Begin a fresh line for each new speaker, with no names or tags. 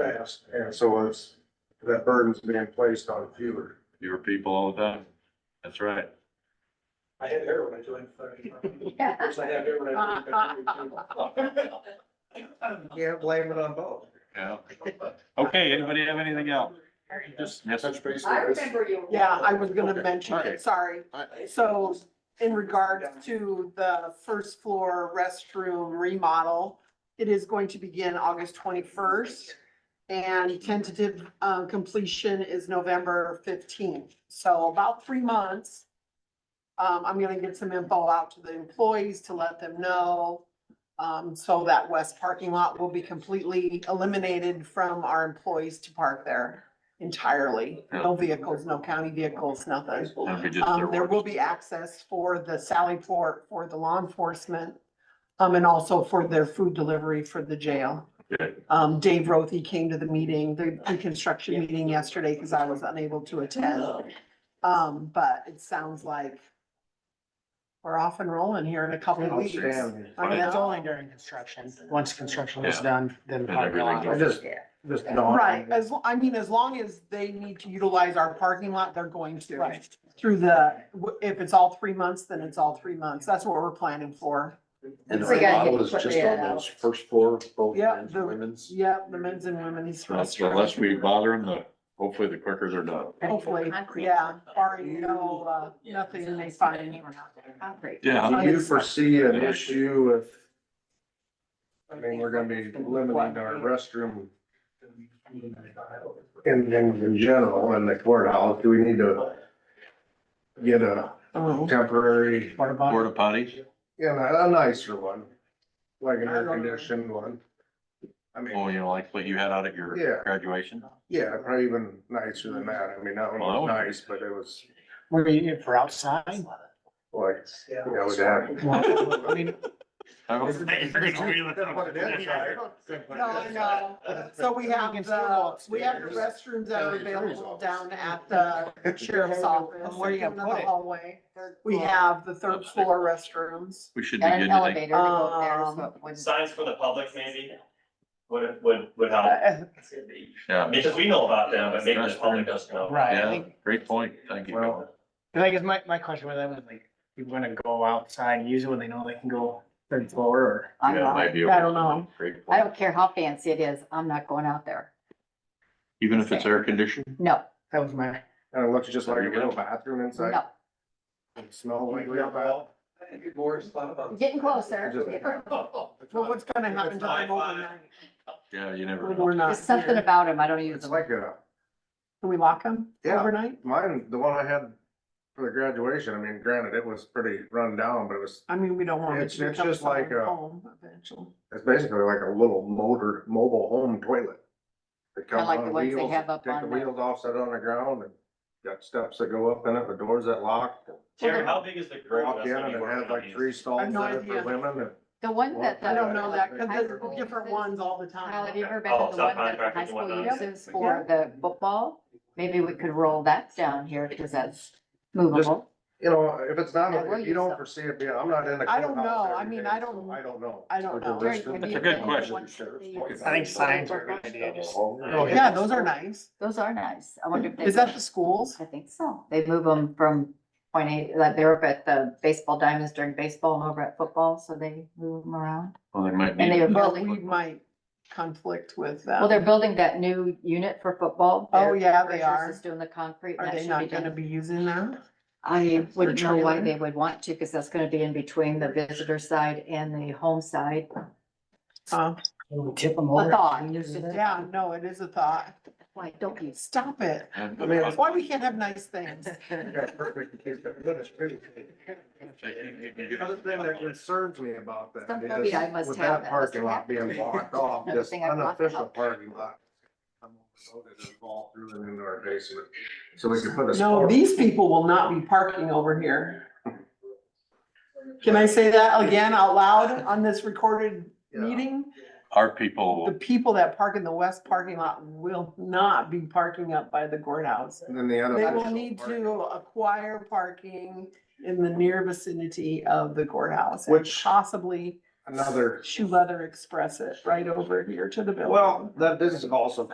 fast, and so it's, that burden's being placed on fewer.
Fewer people all the time. That's right.
I had hair when I joined.
Yeah.
Yes, I had hair when I.
Can't blame it on both.
Yeah. Okay, anybody have anything else? Just, yes,
Touch base.
I
with this.
remember you.
Yeah, I was gonna
Okay,
mention
okay.
it, sorry.
Alright.
So in regards to the first floor restroom remodel, it is going to begin August twenty-first. And tentative, um, completion is November fifteenth, so about three months. Um, I'm gonna get some info out to the employees to let them know. Um, so that west parking lot will be completely eliminated from our employees to park there entirely. No vehicles, no county vehicles, nothing.
that'd be just
Um,
their
there
words.
will be access for the Sally Port, for the law enforcement, um, and also for their food delivery for the jail.
Good.
Um, Dave Rothy came to the meeting, the reconstruction meeting yesterday, because I was unable to attend. Um, but it sounds like we're off and rolling here in a couple of weeks.
Outstanding.
I mean,
It's
that's all-
only during construction. Once construction is
Yeah.
done, then the
Then
parking lot.
everything
I just, just don't.
Right, as, lo- I mean, as long as they need to utilize our parking lot, they're going to.
Right.
Through the, if it's all three months, then it's all three months. That's what we're planning for.
And the
We gotta
remodel
get
is
put
just
that
on those
out.
first floor, both
Yeah,
men's
the-
and women's.
Yep, the men's and women's.
Unless unless we bother them, the- hopefully the quicker they're done.
Hopefully, yeah, barring no, uh, nothing they find.
Concrete.
Yeah.
Do you foresee an issue if, I mean, we're gonna be limiting our restroom in, in, in general in the courthouse, do we need to get a
Oh.
temporary,
What about-
Porta potties?
you know, a nicer one? Like an air conditioned one? I
Oh,
mean,
you know, like what you had out at
Yeah.
your graduation?
yeah, probably even nicer than that. I mean, that one was nice, but it was
Were you for outside?
like, yeah, it was happy.
Well, I mean,
I hope-
No, I know.
Uh,
So we have the, we have the restrooms that are available down at the sheriff's office.
Where you gonna
in the
put it?
Hallway. We have the third floor restrooms.
We should be
Got an
good today.
elevator to go up there, so it wouldn't-
Signs for the public maybe would, would, would help.
uh,
Yeah,
Because we know about them, but maybe the public doesn't know.
Right, I
yeah,
think,
great point. Thank you.
Well,
I think it's my, my question with that was like, you wanna go outside and use it when they know they can go third floor or?
I'm
Yeah, it might
not-
be
I don't know.
Great
I
point.
don't care how fancy it is, I'm not going out there.
Even if it's air conditioned?
No,
That was my.
And it looks just like a real bathroom inside.
no,
It smelled like real bathroom.
getting closer.
Well, what's gonna happen to them overnight?
Yeah, you never
When
know.
we're not
There's something
here?
about them, I don't use
It's
them.
like a,
Can we lock them
Yeah.
overnight?
mine, the one I had for the graduation, I mean, granted, it was pretty run down, but it was,
I mean, we don't want.
It's- it's just like uh, a-
Eventually.
it's basically like a little motor, mobile home toilet. It comes
like
on
the ones they
wheels,
have up
Take the
on the-
wheels off, set it on the ground and got steps that go up in it, with doors that lock.
Terry, how big is the group?
Walk in and it had like three
I
stalls
have
in
no
it for
idea.
women and.
The one that the.
I don't know that, cause
high
there's
school
different
uses-
ones all the
Kyle, have
time.
you ever been to
Oh,
the one that the
subcontractors
high
and
school
whatnot.
uses for the football? Maybe we could roll that down here, cause that's movable.
You know, if it's not,
Yeah, we'll
if you
use
don't
them.
foresee it, being- I'm not in the.
I don't
courthouse
know. I
every
mean,
day,
I
so
don't-
I don't know.
I don't
With the
know.
rest
Very-
of
have
the-
you
a good
been to the
question.
ones that they use?
I think signs are a good idea, just-
Oh,
Yeah, those are nice.
Those are nice. I wonder if they.
Is that the schools?
I think so. They move them from point eight, like they were up at the baseball diamonds during baseball and over at football, so they move them around.
Well, they might
And they are
need,
But
building,
we might conflict with them.
well, they're building that new unit for football.
Oh,
Their
yeah, they
Rogers
are.
Is doing the concrete. and
Are
that
they
should
not gonna
done.
be using that?
I wouldn't know why
trailer?
they would want to, because that's gonna be in between the visitor side and the home side.
Huh?
Tip them
A
over.
thought.
Yeah, no, it is a thought.
Why don't you?
Stop it.
and
I mean,
That's why we can't have nice things.
Yeah, perfect. in case they're good, it's pretty. The other thing that concerns me about that
Some phobia I
is
must
with
have,
that
that
parking
must
lot being
happen.
blocked off,
Another
this
thing I've blocked
unofficial
out.
parking lot. I'm overloaded and Fall through and into our basement, so we could put a.
No,
sport-
these people will not be parking over here. Can I say that again out loud on this recorded
Yeah.
meeting?
our people,
The
will-
people that park in the west parking lot will not be parking up by the courthouse.
And then the
They will
unofficial
need
parking
to acquire parking in the near vicinity of the courthouse. and
Which-
Possibly
Another,
shoe leather express it right over here to the building.
well, that, this is also